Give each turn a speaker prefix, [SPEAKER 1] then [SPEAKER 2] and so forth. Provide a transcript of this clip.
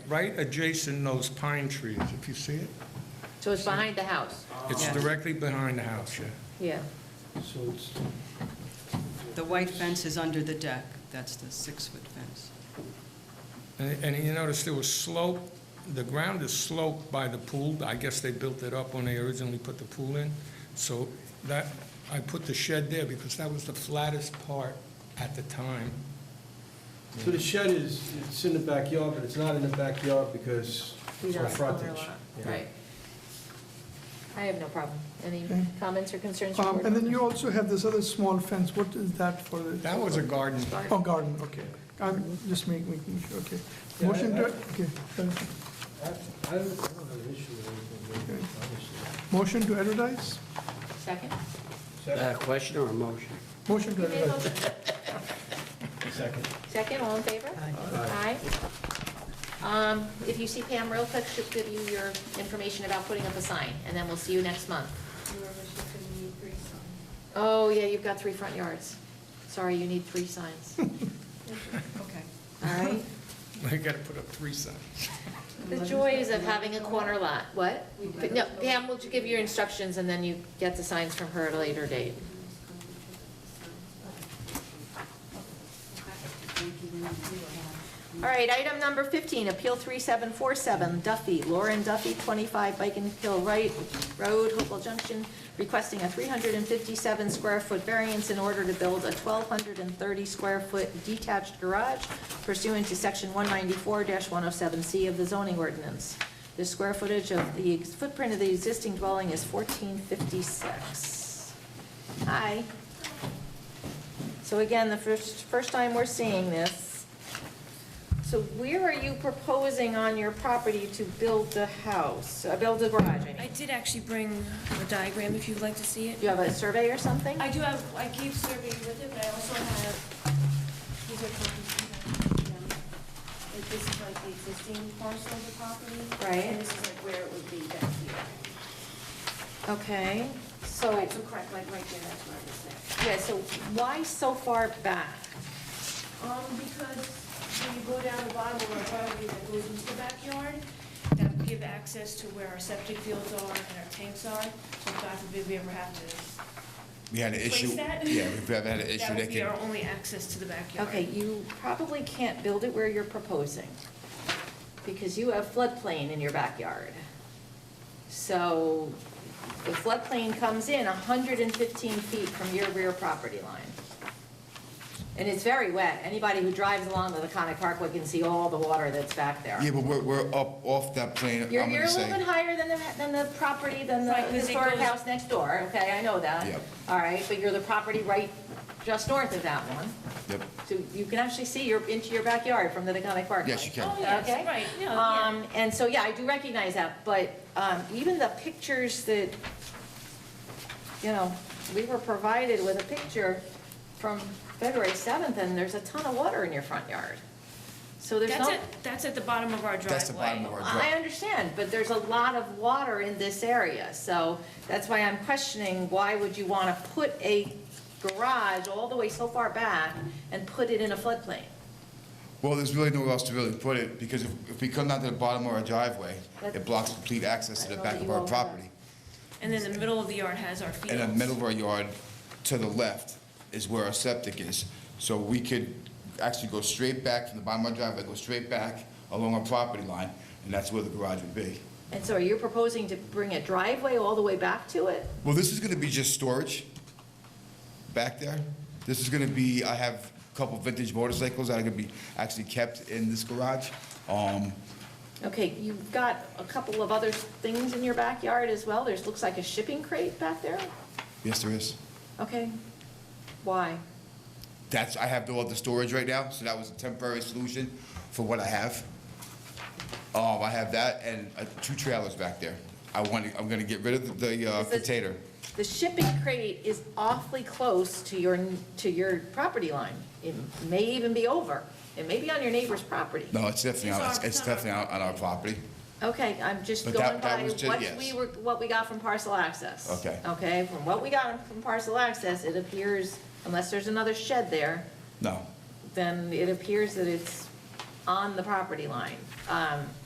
[SPEAKER 1] right adjacent those pine trees, if you see it.
[SPEAKER 2] So it's behind the house?
[SPEAKER 1] It's
[SPEAKER 3] Yeah.
[SPEAKER 1] directly behind the house, yeah.
[SPEAKER 2] Yeah.
[SPEAKER 4] So it's,
[SPEAKER 3] The white fence is under the deck. That's the six-foot fence.
[SPEAKER 1] And and you notice there was slope, the ground is sloped by the pool. I guess they built it up when they originally put the pool in. So that, I put the shed there because that was the flattest part at the time.
[SPEAKER 4] so the shed is, it's in the backyard, but it's not in the backyard because
[SPEAKER 2] We
[SPEAKER 4] it's
[SPEAKER 2] don't
[SPEAKER 4] on
[SPEAKER 2] have
[SPEAKER 4] frontage.
[SPEAKER 2] overlap.
[SPEAKER 4] Yeah.
[SPEAKER 2] Right. I have no problem. Any
[SPEAKER 5] Okay.
[SPEAKER 2] comments or concerns? from
[SPEAKER 5] Um,
[SPEAKER 2] board
[SPEAKER 5] And then you
[SPEAKER 2] members?
[SPEAKER 5] also have this other small fence, what is that for? the-
[SPEAKER 1] That was a garden.
[SPEAKER 5] Oh, garden, okay. I'm just making, making sure, okay.
[SPEAKER 4] Yeah,
[SPEAKER 5] Motion to,
[SPEAKER 4] I-
[SPEAKER 5] okay, uh,
[SPEAKER 4] I I don't I don't have an issue with anything,
[SPEAKER 5] Okay.
[SPEAKER 4] obviously.
[SPEAKER 5] motion to advertise?
[SPEAKER 2] Second?
[SPEAKER 6] A question or a motion?
[SPEAKER 5] Motion to
[SPEAKER 2] You made a
[SPEAKER 5] advertise.
[SPEAKER 2] motion.
[SPEAKER 4] Second.
[SPEAKER 2] Second, all in favor? Aye. Um, If you see Pam real quick, she'll give you your information about putting up a sign, and then we'll see you next month. Oh, yeah, you've got three front yards. Sorry, you need three signs. All
[SPEAKER 3] Okay.
[SPEAKER 2] right?
[SPEAKER 1] I gotta put up three signs.
[SPEAKER 2] The joys of having a corner lot, what? But No, Pam will give you your instructions, and then you get the signs from her at a later date. All right, item number 15, Appeal 3747, Duffy, Lauren Duffy, 25 Biken Hill Right Road, Hopewell Junction, requesting a 357-square-foot variance in order to build a 1,230-square-foot detached garage pursuant to Section 194-107C of the zoning ordinance. The square footage of the ex- footprint of the existing dwelling is 1456. Hi. So again, the first, first time we're seeing this. So where are you proposing on your property to build the house, uh, build the garage, I
[SPEAKER 7] I
[SPEAKER 2] mean?
[SPEAKER 7] did actually bring a diagram if you'd like to see it.
[SPEAKER 2] Do you have a survey or something?
[SPEAKER 7] I do have, I gave survey with it, but I also have, these are copies. you know, like, This is like the existing parcel of the property.
[SPEAKER 2] Right.
[SPEAKER 7] And this is like where it would be back here.
[SPEAKER 2] Okay, so,
[SPEAKER 7] Right, so correct, like right there, that's where it is now.
[SPEAKER 2] yeah, so why so far back?
[SPEAKER 7] Um, because when you go down the bottom of our property that goes into the backyard, that would give access to where our septic fields are and our tanks are, so God forbid we ever have to
[SPEAKER 8] We had an
[SPEAKER 7] Place
[SPEAKER 8] issue.
[SPEAKER 7] that?
[SPEAKER 8] Yeah, we've ever had an issue
[SPEAKER 7] That
[SPEAKER 8] that
[SPEAKER 7] would be
[SPEAKER 8] can,
[SPEAKER 7] our only access to the backyard.
[SPEAKER 2] Okay, you probably can't build it where you're proposing, because you have floodplain in your backyard. So the floodplain comes in 115 feet from your rear property line. And it's very wet. Anybody who drives along the Laconic Parkway can see all the water that's back there.
[SPEAKER 8] yeah, but we're, we're up off that plane, I'm
[SPEAKER 2] You're, you're
[SPEAKER 8] gonna
[SPEAKER 2] a little bit
[SPEAKER 8] say.
[SPEAKER 2] higher than the, than the property, than the
[SPEAKER 7] Right, 'cause it
[SPEAKER 2] historic
[SPEAKER 7] goes-
[SPEAKER 2] house next door, okay, I know that.
[SPEAKER 8] Yep.
[SPEAKER 2] All right, but you're the property right just north of that one.
[SPEAKER 8] Yep.
[SPEAKER 2] So you can actually see your, into your backyard from the Deconic Park.
[SPEAKER 8] Yes, you can.
[SPEAKER 7] Oh, yes,
[SPEAKER 2] Okay?
[SPEAKER 7] right, no, yeah.
[SPEAKER 2] Um, and so, yeah, I do recognize that, but, um, even the pictures that, you know, we were provided with a picture from February seventh, and there's a ton of water in your front yard. So there's
[SPEAKER 7] That's
[SPEAKER 2] no.
[SPEAKER 7] at, that's at the bottom of our driveway.
[SPEAKER 8] That's the bottom of our
[SPEAKER 2] I
[SPEAKER 8] driveway.
[SPEAKER 2] understand, but there's a lot of water in this area, so that's why I'm questioning, why would you want to put a garage all the way so far back and put it in a floodplain?
[SPEAKER 8] Well, there's really nowhere else to really put it, because if, if we come down to the bottom of our driveway,
[SPEAKER 2] That-
[SPEAKER 8] it blocks complete access
[SPEAKER 2] I
[SPEAKER 8] to the
[SPEAKER 2] know
[SPEAKER 8] back
[SPEAKER 2] that
[SPEAKER 8] of
[SPEAKER 2] you
[SPEAKER 8] our
[SPEAKER 2] all have
[SPEAKER 8] property.
[SPEAKER 7] And then the middle of the yard has our
[SPEAKER 8] In the
[SPEAKER 7] fields.
[SPEAKER 8] middle of our yard, to the left, is where our septic is. So we could actually go straight back from the bottom of our driveway, go straight back along our property line, and that's where the garage would be.
[SPEAKER 2] And so are you proposing to bring a driveway all the way back to it?
[SPEAKER 8] Well, this is going to be just storage back there. This is going to be, I have a couple vintage motorcycles that are going to be actually kept in this garage. Um,
[SPEAKER 2] Okay, you've got a couple of other things in your backyard as well, there's, looks like a shipping crate back there?
[SPEAKER 8] Yes, there is.
[SPEAKER 2] Okay, why?
[SPEAKER 8] That's, I have all the storage right now, so that was a temporary solution for what I have. Um, I have that and uh, two trailers back there. I want, to. I'm going to get rid of the uh,
[SPEAKER 2] Is this-
[SPEAKER 8] container.
[SPEAKER 2] The shipping crate is awfully close to your, to your property line. It may even be over. It may be on your neighbor's property.
[SPEAKER 8] No, it's definitely,
[SPEAKER 7] It's
[SPEAKER 8] on-
[SPEAKER 7] our-
[SPEAKER 8] it's- it's
[SPEAKER 7] it's on our
[SPEAKER 8] definitely on on our property.
[SPEAKER 2] Okay, I'm just
[SPEAKER 8] But
[SPEAKER 2] going
[SPEAKER 8] that- that
[SPEAKER 2] by
[SPEAKER 8] was ju-
[SPEAKER 2] what
[SPEAKER 8] yes.
[SPEAKER 2] we were, what we got from parcel access.
[SPEAKER 8] Okay.
[SPEAKER 2] Okay, from what we got from parcel access, it appears, unless there's another shed there,
[SPEAKER 8] No.
[SPEAKER 2] then it appears that it's on the property line. Um,